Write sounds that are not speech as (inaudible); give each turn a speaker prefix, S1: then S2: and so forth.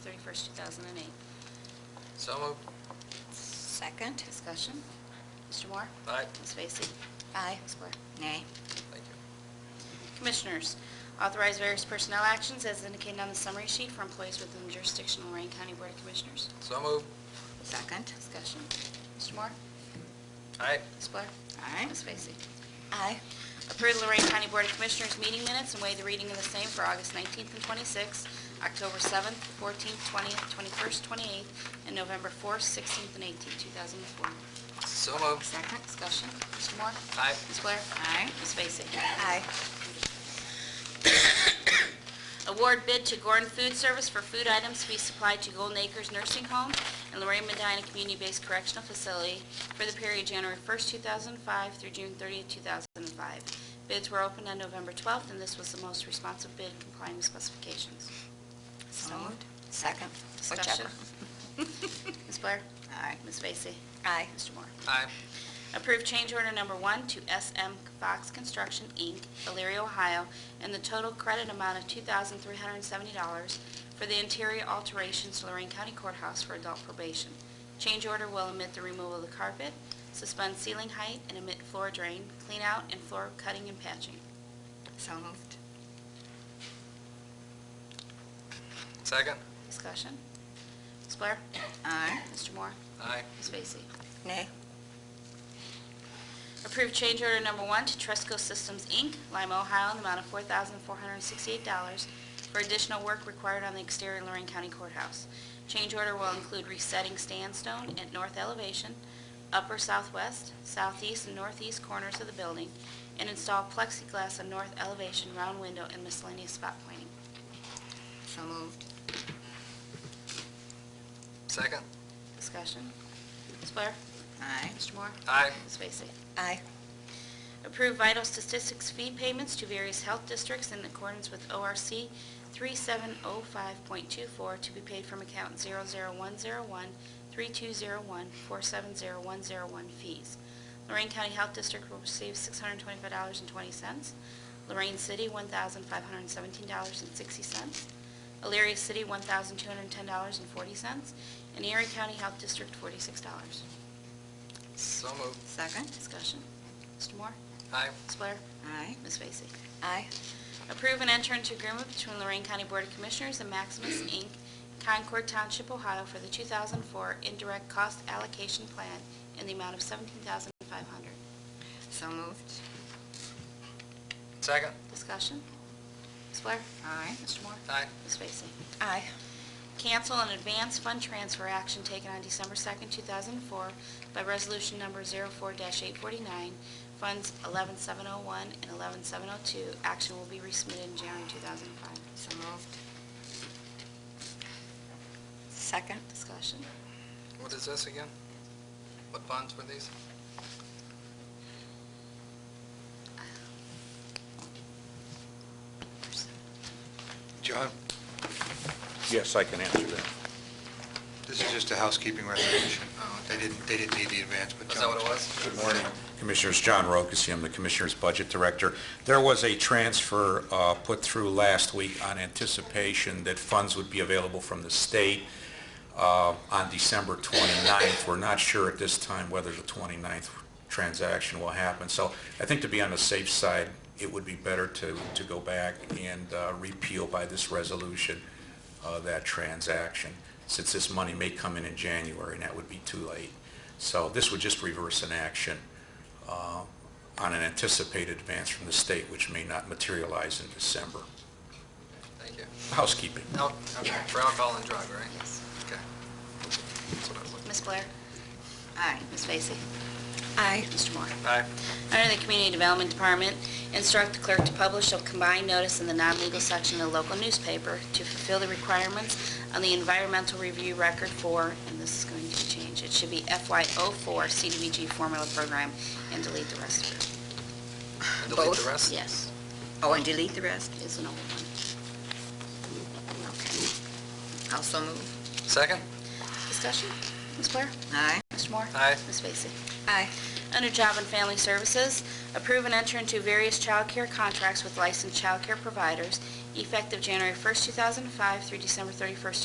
S1: 31st, 2008.
S2: So moved.
S3: Second?
S1: Discussion? Mr. Moore?
S2: Aye.
S1: Ms. Vacy?
S3: Aye.
S1: Ms. Blair?
S3: Nay.
S2: Thank you.
S1: Commissioners, authorize various personnel actions as indicated on the summary sheet for employees within the jurisdiction of Lorraine County Board of Commissioners.
S2: So moved.
S3: Second?
S1: Discussion. Mr. Moore?
S2: Aye.
S1: Ms. Blair?
S3: Aye.
S1: Ms. Vacy?
S3: Aye.
S1: Approve the Lorraine County Board of Commissioners meeting minutes and waive the reading of the same for August 19th and 26th, October 7th, 14th, 20th, 21st, 28th, and November 4th, 16th, and 18th, 2004.
S2: So moved.
S3: Second?
S1: Discussion. Mr. Moore?
S2: Aye.
S1: Ms. Blair?
S3: Aye.
S1: Ms. Vacy?
S3: Aye.
S1: (coughs) Award bid to Gordon Food Service for food items to be supplied to Golden Acres Nursing Home and Lorraine Medina Community-Based Correctional Facility for the period January 1st, 2005 through June 30th, 2005. Bids were opened on November 12th, and this was the most responsive bid complying with specifications.
S3: So moved. Second? (laughs)
S1: Discussion. Ms. Blair?
S3: Aye.
S1: Ms. Vacy?
S3: Aye.
S1: Mr. Moore?
S2: Aye.
S1: Approve change order number one to SM Fox Construction, Inc., Elyria, Ohio, and the total credit amount of $2,370 for the interior alterations to Lorraine County Courthouse for adult probation. Change order will omit the removal of the carpet, suspend ceiling height, and omit floor drain, clean out, and floor cutting and patching.
S3: So moved.
S2: Second.
S1: Discussion? Ms. Blair?
S3: Aye.
S1: Mr. Moore?
S2: Aye.
S1: Ms. Vacy?
S3: Nay.
S1: Approve change order number one to Tresco Systems, Inc., Lima, Ohio, in the amount of $4,468 for additional work required on the exterior Lorraine County Courthouse. Change order will include resetting sandstone at north elevation, upper southwest, southeast, and northeast corners of the building, and install plexiglass on north elevation round window and miscellaneous spot pointing.
S3: So moved.
S2: Second.
S1: Discussion. Ms. Blair?
S3: Aye.
S1: Mr. Moore?
S2: Aye.
S1: Ms. Vacy?
S3: Aye.
S1: Approve vital statistics fee payments to various health districts in accordance with ORC 3705.24 to be paid from account 00101-3201-470101 fees. Lorraine County Health District will receive $625.20, Lorraine City $1,517.60, Elyria City $1,210.40, and Erie County Health District $46.
S2: So moved.
S3: Second?
S1: Discussion. Mr. Moore?
S2: Aye.
S1: Ms. Blair?
S3: Aye.
S1: Ms. Vacy?
S3: Aye.
S1: Approve and enter into agreement between Lorraine County Board of Commissioners and Maximus, Inc., Concord Township, Ohio, for the 2004 indirect cost allocation plan in the amount of $17,500.
S3: So moved.
S2: Second.
S1: Discussion? Ms. Blair?
S3: Aye.
S1: Mr. Moore?
S2: Aye.
S1: Ms. Vacy?
S3: Aye.
S1: Cancel an advance fund transfer action taken on December 2nd, 2004 by Resolution Number 04-849, Funds 11701 and 11702. Action will be resubmitted in January 2005.
S3: So moved. Second?
S1: Discussion?
S2: What is this again? What bonds were these?
S4: John,
S5: Yes, I can answer that.
S4: this is just a housekeeping resolution. They didn't, they didn't need the advance, but
S2: Oh, Is
S4: John...
S2: that what it was?
S5: Good morning. Commissioners, John Rokusi, I'm the Commissioner's Budget Director. There was a transfer uh, put through last week on anticipation that funds would be available from the state uh, on December 29th. We're not sure at this time whether the 29th transaction will happen. So I think to be on the safe side, it would be better to, to go back and uh, repeal by this resolution uh, that transaction, since this money may come in in January, and that would be too late. So this would just reverse an action uh, on an anticipated advance from the state, which may not materialize in December.
S2: Thank you.
S5: Housekeeping.
S2: No, okay. For alcohol and drug, right?
S1: Yes.
S2: Okay. That's what I was looking
S1: Ms. Blair?
S3: Aye.
S1: Ms. Vacy?
S3: Aye.
S1: Mr. Moore?
S2: for. Aye.
S1: Under the Community Development Department, instruct the clerk to publish a combined notice in the non-legal section of the local newspaper to fulfill the requirements on the environmental review record for, and this is going to change, it should be FY04 CDBG formula program, and delete the rest of it.
S2: And Delete
S3: Both?
S2: the rest?
S1: Yes,
S3: Oh, and delete the rest?
S1: it's an old one.
S3: Okay. Also move.
S2: Second.
S1: Discussion? Ms. Blair?
S3: Aye.
S1: Mr. Moore?
S2: Aye.
S1: Ms. Vacy?
S3: Aye.
S1: Under Job and Family Services, approve and enter into various child care contracts with licensed child care providers effective January 1st, 2005 through December 31st,